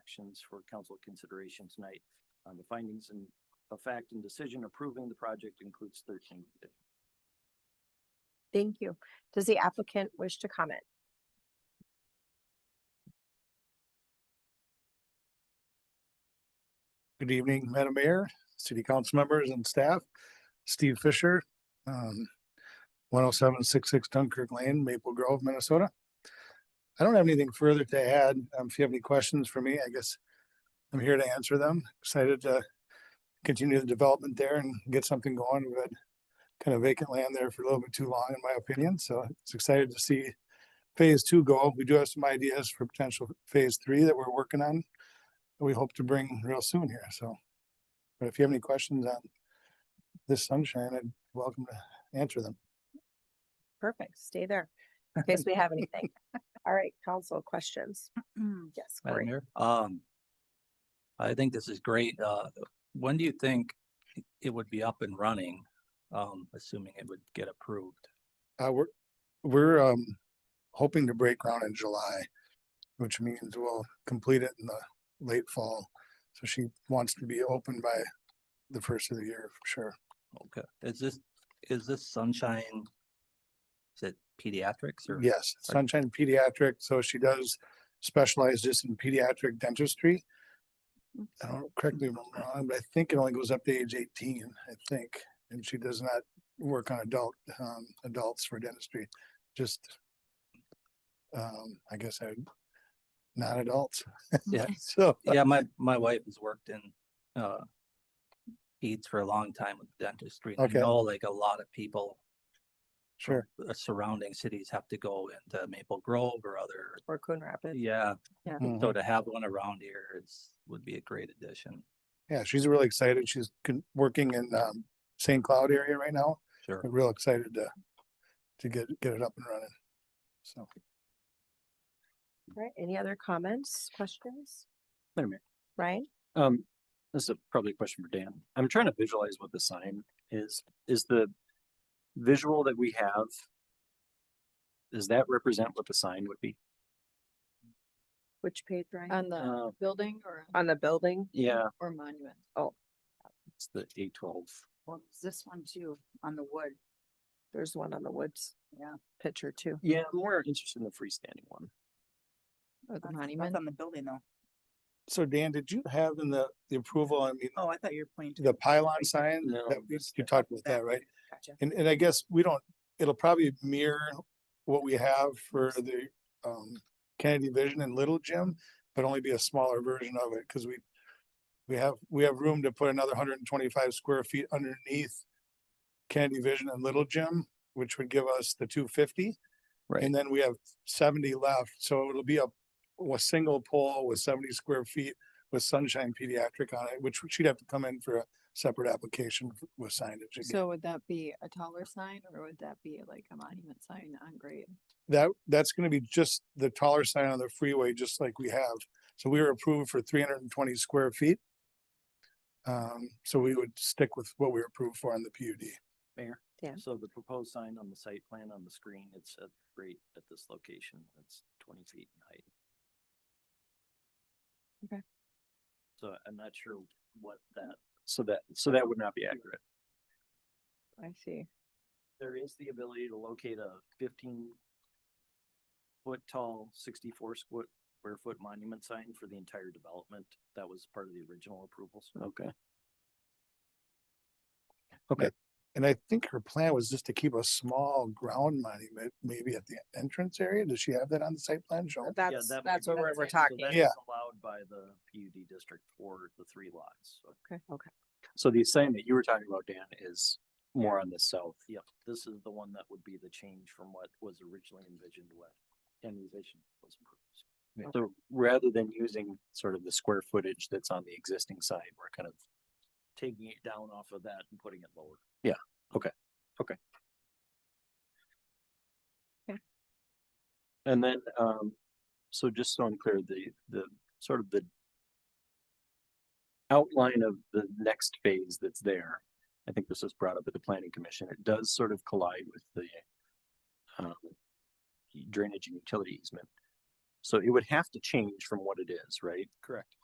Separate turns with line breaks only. actions for council consideration tonight. Um, the findings and a fact and decision approving the project includes thirteen.
Thank you. Does the applicant wish to comment?
Good evening, Madam Mayor, City Council members and staff. Steve Fisher, um, one oh seven six six Dunkirk Lane, Maple Grove, Minnesota. I don't have anything further to add. Um, if you have any questions for me, I guess I'm here to answer them. Excited to continue the development there and get something going. We've had kind of vacant land there for a little bit too long, in my opinion, so it's excited to see phase two go. We do have some ideas for potential phase three that we're working on that we hope to bring real soon here, so. But if you have any questions on this sunshine, I'd welcome to answer them.
Perfect. Stay there in case we have anything. All right, council questions? Yes,
Madam
Corey.
Mayor? Um, I think this is great. Uh, when do you think it- it would be up and running? Um, assuming it would get approved.
Uh, we're, we're, um, hoping to break ground in July, which means we'll complete it in the late fall. So she wants to be open by the first of the year, for sure.
Okay, is this, is this sunshine? Is it pediatrics or?
Yes,
Like-
Sunshine Pediatric, so she does specialize just in pediatric dentistry. I don't correctly remember, wrong, but I think it only goes up to age eighteen, I think, and she does not work on adult, um, adults for dentistry, just um, I guess I, not adults.
Yeah.
So,
Yeah, my, my wife has worked in, uh, Eats for a long time with dentistry. and I
Okay.
know like a lot of people,
sure,
uh, surrounding cities have to go into Maple Grove or other,
Or Coon Rapids.
yeah.
Mhm.
So to have one around here is, would be a great addition.
yeah, she's really excited, she's con- working in, um, St. Cloud area right now,
Sure.
real excited to, to get, get it up and running. So.
All right, any other comments, questions?
Madam Mayor.
Ryan?
Um, this is probably a question for Dan. I'm trying to visualize what the sign is. Is the visual that we have, does that represent what the sign would be?
Which page, Ryan?
On the
Um,
Uh,
building or?
On the building?
yeah,
Or monument.
it's the A twelve.
Well, it's this one too, on the wood.
There's one on the woods.
Yeah.
Picture too.
Yeah, I'm more interested in the freestanding one.
Or the
That's- that's
monument.
On the building though.
So Dan, did you have in the, the approval, I mean,
Oh, I thought you were pointing to.
the pylon sign?
No,
that we- You talked about that,
that.
right?
Gotcha.
And, and I guess we don't, it'll probably mirror what we have for the, um, Kennedy Vision and Little Gym, but only be a smaller version of it, because we, we have, we have room to put another hundred and twenty-five square feet underneath Kennedy Vision and Little Gym, which would give us the two fifty.
Right.
And then we have seventy left, so it'll be a, a single pole with seventy square feet with Sunshine Pediatric on it, which she'd have to come in for a separate application f- with signage. again.
So would that be a taller sign or would that be like a monument sign on grade?
That, that's gonna be just the taller sign on the freeway, just like we have. So we were approved for three hundred and twenty square feet. Um, so we would stick with what we were approved for on the PUD.
Mayor?
Yeah.
So the proposed sign on the site plan on the screen, it's at great at this location, it's twenty feet in height.
Okay.
So I'm not sure what that, so that, so that would not be accurate.
I see.
There is the ability to locate a fifteen foot tall, sixty-four square, square foot monument sign for the entire development. That was part of the original approvals. Okay.
And I think her plan was just to keep a small ground monument, maybe at the entrance area. Does she have that on the site plan? Joel?
Yeah,
That's,
that
that's
might
what
be-
we're, we're
so that
talking.
is
Yeah.
Allowed by the PUD district for the three lots. so-
Okay.
So the sign that you were talking about, Dan, is more on the south.
Yep, this is the one that would be the change from what was originally envisioned when Kennedy Vision was approved.
So rather than using sort of the square footage that's on the existing sign, we're kind of,
Taking it down off of that and putting it lower.
and then, um, so just so I'm clear, the, the, sort of the outline of the next phase that's there, I think this was brought up at the planning commission, it does sort of collide with the um, drainage and utility easement. So it would have to change from what it is, right?
Correct.